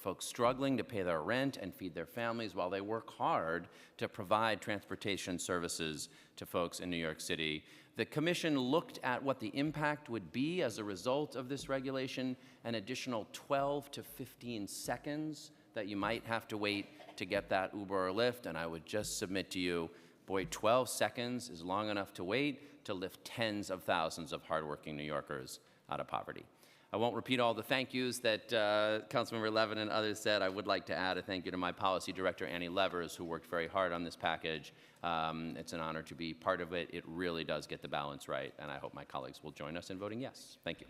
folks struggling to pay their rent and feed their families while they work hard to provide transportation services to folks in New York City. The commission looked at what the impact would be as a result of this regulation, an additional 12 to 15 seconds that you might have to wait to get that Uber or Lyft. And I would just submit to you, boy, 12 seconds is long enough to wait to lift tens of thousands of hardworking New Yorkers out of poverty. I won't repeat all the thank yous that uh, Councilmember Levin and others said. I would like to add a thank you to my policy director, Annie Levers, who worked very hard on this package. Um, it's an honor to be part of it. It really does get the balance right, and I hope my colleagues will join us in voting yes. Thank you.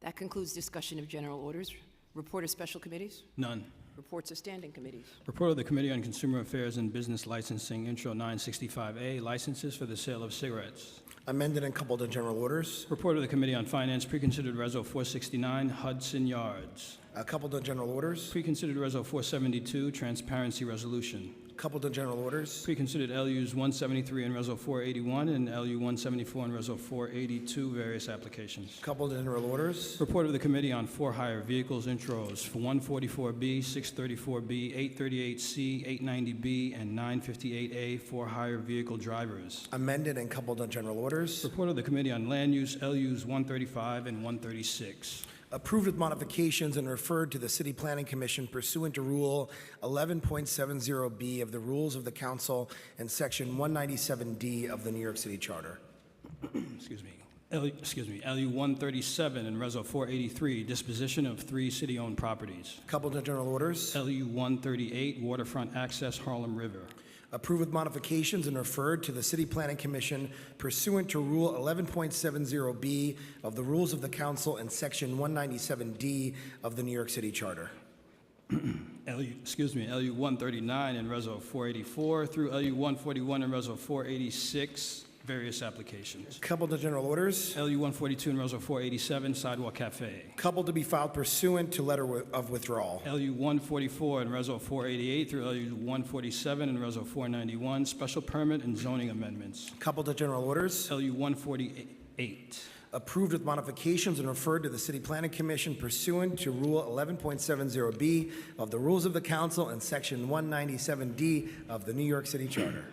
That concludes discussion of general orders. Report of special committees, None. reports of standing committees. Report of the Committee on Consumer Affairs and Business Licensing, Intro 965A, licenses for the sale of cigarettes. Amended and coupled to general orders. Report of the Committee on Finance, Preconsidered Reso 469, Hudson Yards. Uh, Coupled to general orders. Preconsidered Reso 472, Transparency Resolution. Coupled to general orders. Preconsidered LUs 173 and Reso 481, and LU 174 and Reso 482, various applications. Coupled to general orders. Report of the Committee on For-Hire Vehicles Intros for 144B, 634B, 838C, 890B, and 958A For-Hire Vehicle Drivers. Amended and coupled to general orders. Report of the Committee on Land Use, LUs 135 and 136. Approved with modifications and referred to the City Planning Commission pursuant to Rule 11.70B of the Rules of the Council and Section 197D of the New York City Charter. Excuse me. L- Excuse me, LU 137 and Reso 483, disposition of three city-owned properties. Coupled to general orders. LU 138, waterfront access Harlem River. Approved with modifications and referred to the City Planning Commission pursuant to Rule 11.70B of the Rules of the Council and Section 197D of the New York City Charter. LU, excuse me, LU 139 and Reso 484 through LU 141 and Reso 486, various applications. Coupled to general orders. LU 142 and Reso 487, sidewalk cafe. Coupled to be filed pursuant to letter wi- of withdrawal. LU 144 and Reso 488 through LU 147 and Reso 491, special permit and zoning amendments. Coupled to general orders. LU 148. Approved with modifications and referred to the City Planning Commission pursuant to Rule 11.70B of the Rules of the Council and Section 197D of the New York City Charter.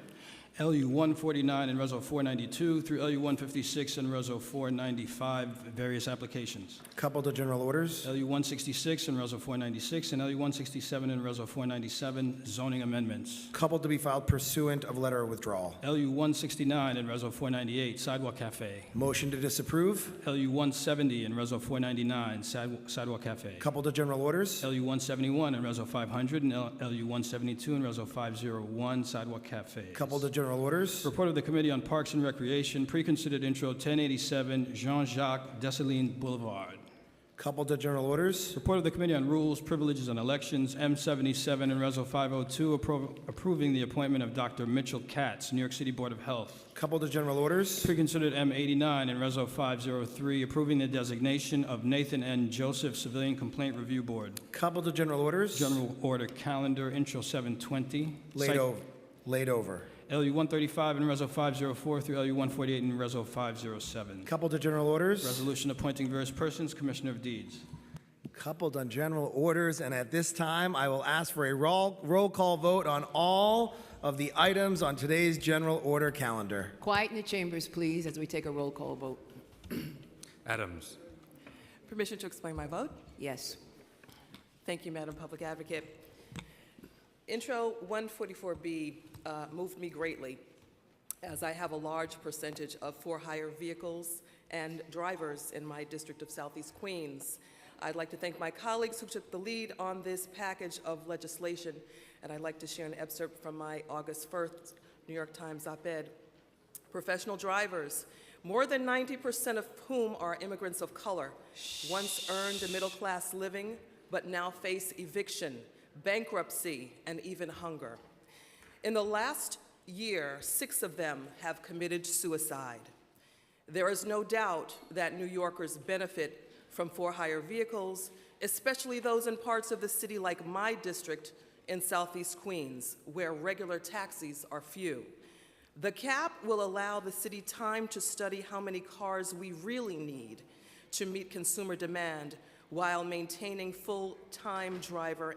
LU 149 and Reso 492 through LU 156 and Reso 495, various applications. Coupled to general orders. LU 166 and Reso 496 and LU 167 and Reso 497, zoning amendments. Coupled to be filed pursuant of letter of withdrawal. LU 169 and Reso 498, sidewalk cafe. Motion to disapprove, LU 170 and Reso 499, sidewalk- sidewalk cafe. coupled to general orders. LU 171 and Reso 500, and L- LU 172 and Reso 501, sidewalk cafes. Coupled to general orders. Report of the Committee on Parks and Recreation, preconsidered intro 1087 Jean-Jacques Dessalines Boulevard. Coupled to general orders. Report of the Committee on Rules, Privileges, and Elections, M77 and Reso 502, appro- approving the appointment of Dr. Mitchell Katz, New York City Board of Health. Coupled to general orders. Preconsidered M89 and Reso 503, approving the designation of Nathan N. Joseph Civilian Complaint Review Board. Coupled to general orders. General Order Calendar, Intro 720. Laid Site- over. Laid over. LU 135 and Reso 504 through LU 148 and Reso 507. Coupled to general orders. Resolution appointing various persons, Commissioner of Deeds. Coupled on general orders, and at this time, I will ask for a roll, roll call vote on all of the items on today's general order calendar. Quiet in the chambers, please, as we take a roll call vote. Adams. Permission to explain my vote? Yes. Thank you, Madam Public Advocate. Intro 144B uh, moved me greatly, as I have a large percentage of for-hire vehicles and drivers in my district of Southeast Queens. I'd like to thank my colleagues who took the lead on this package of legislation, and I'd like to share an excerpt from my August 1st New York Times op-ed. Professional drivers, more than 90% of whom are immigrants of color, once earned a middle class living, but now face eviction, bankruptcy, and even hunger. In the last year, six of them have committed suicide. There is no doubt that New Yorkers benefit from for hire vehicles, especially those in parts of the city like my district in southeast Queens, where regular taxis are few. The cap will allow the city time to study how many cars we really need to meet consumer demand while maintaining full-time driver